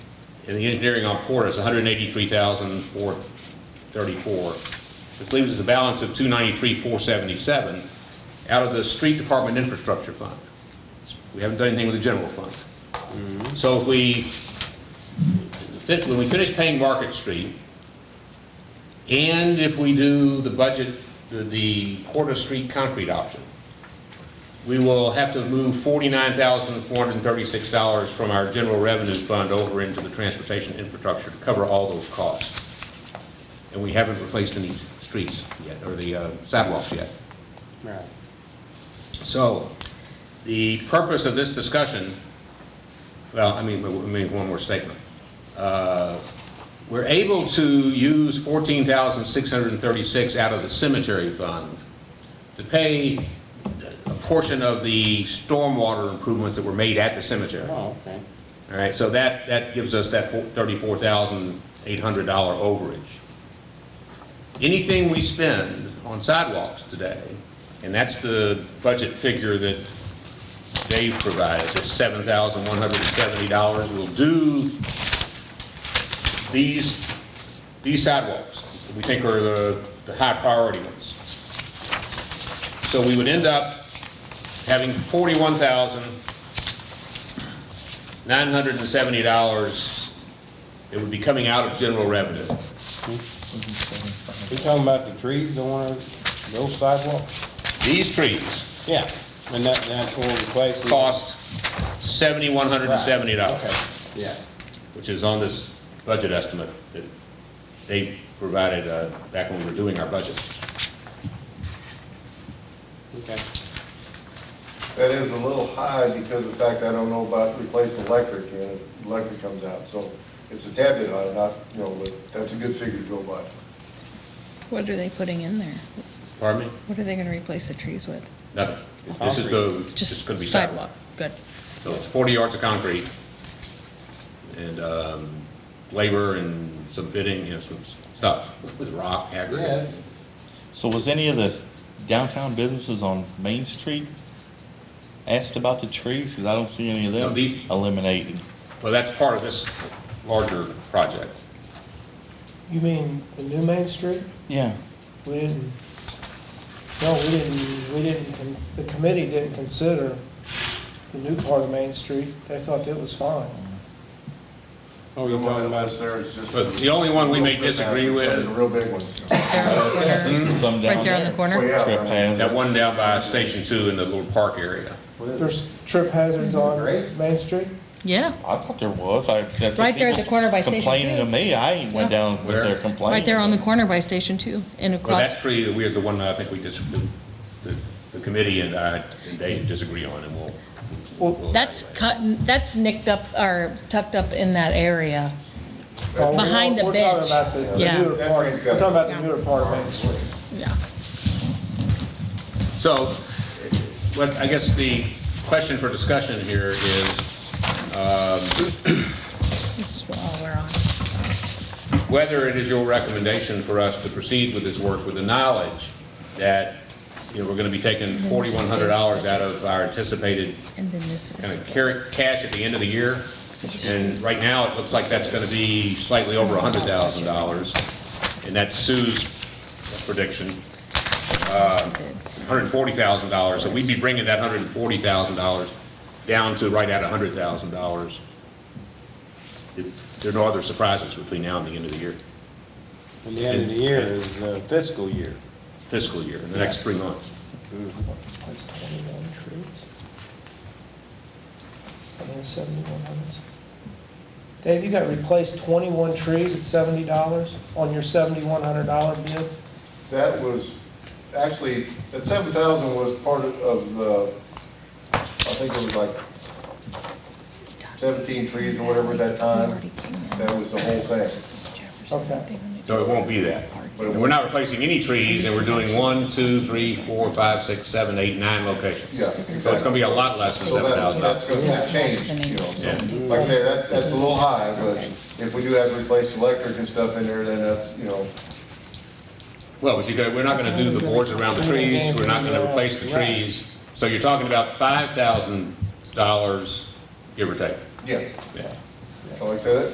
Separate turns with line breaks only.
and the engineering on Porter is 183,434, which leaves us a balance of 293,477 out of the street department infrastructure fund. We haven't done anything with the general fund. So if we, fit- when we finish paying Market Street, and if we do the budget, the- the Porter Street concrete option, we will have to move $49,436 from our general revenue fund over into the transportation infrastructure to cover all those costs. And we haven't replaced any streets yet, or the uh, sidewalks yet.
Right.
So, the purpose of this discussion, well, I mean, I mean, one more statement. Uh, We're able to use 14,636 out of the cemetery fund to pay a portion of the stormwater improvements that were made at the cemetery. All
Oh, okay.
right, so that, that gives us that four- $34,800 overage. Anything we spend on sidewalks today, and that's the budget figure that Dave provides, is $7,170, will do these, these sidewalks, that we think are the, the high priority ones. So we would end up having forty-one thousand nine hundred and seventy dollars that would be coming out of general revenue.
You talking about the trees, the one, those sidewalks?
These trees
Yeah, and that, that's all the place.
cost seventy-one hundred and seventy dollars,
Okay, yeah.
which is on this budget estimate that they provided uh, back when we were doing our budget.
Okay.
That is a little high because of the fact I don't know about replacing electric, and electric comes out, so it's a tad bit high, not, you know, but that's a good figure to go by.
What are they putting in there?
Pardon me?
What are they gonna replace the trees with?
Nothing. This is the, this is
Just
gonna be
sidewalk, good.
So it's 40 yards of concrete and um, labor and some fitting, you know, some s- stuff with rock, aggregate.
So was any of the downtown businesses on Main Street asked about the trees? Because I don't see any of
No,
them
the-
eliminated.
Well, that's part of this larger project.
You mean the new Main Street?
Yeah.
We didn't, no, we didn't, we didn't, con- the committee didn't consider the new part of Main Street. They thought it was fine.
Oh,
The
you're
one
talking about,
that's there is just.
But the only one we may disagree with-
The real big one.
There on the corner,
Some
right
down
there on the
there.
Well,
corner?
yeah, I mean,
Trespass.
Oh, That one down by Station 2 in the little park area.
There's trip hazards on
Great.
Main Street?
Yeah,
I thought there was. I, that's.
Right there at the
people's
corner by Station
Complaining
Two.
to me. I ain't went
Yeah.
down with
Where?
their complaint.
right there on the corner by Station Two and
Well, that
across.
tree, we are the one that I think we dis- the the committee and I, and Dave disagree on, and we'll.
Well,
we'll
That's
evaluate.
cut, that's nicked up, or tucked up in that area.
Well, we're-
Behind the
We're talking
bench.
about the-
Yeah.
the newer
That
part, we're
train's
talking
got-
about the newer part of Main Street.
Yeah.
So, what, I guess the question for discussion here is,
This is all we're on.
whether it is your recommendation for us to proceed with this work with the knowledge that, you know, we're going to be taking forty-one hundred dollars out of our anticipated
And then this
kind of
is,
car- cash at the end of the year. And right now, it looks like that's going to be slightly over hundred thousand dollars, and that's Sue's prediction, hundred and forty thousand dollars. So we'd be bringing that hundred and forty thousand dollars down to right at hundred thousand dollars. If there are no other surprises between now and the end of the year.
and the end of the year is the fiscal year.
fiscal year, in the next three months.
That's 21 trees. I mean, 71 hundreds. Dave, you got replaced 21 trees at $70 on your $7,100 bid?
That was, actually, that seven thousand was part of- of the, I think it was like seventeen trees or whatever at that time. That was the whole thing.
Okay.
So it won't be that. And we're not replacing any trees, and we're doing one, two, three, four, five, six, seven, eight, nine locations.
Yeah,
So it's gonna be a lot less than
So
seven
that,
thousand
that's
dollars.
gonna, that changed, you know, so, like I say, that, that's a little high, but if we do have to replace electric and stuff in there, then that's, you know,
Well, but you go, we're not gonna do the boards around the trees, we're not gonna replace the trees. So you're talking about five thousand dollars, give or take.
yeah.
Yeah.
So Like I said, that-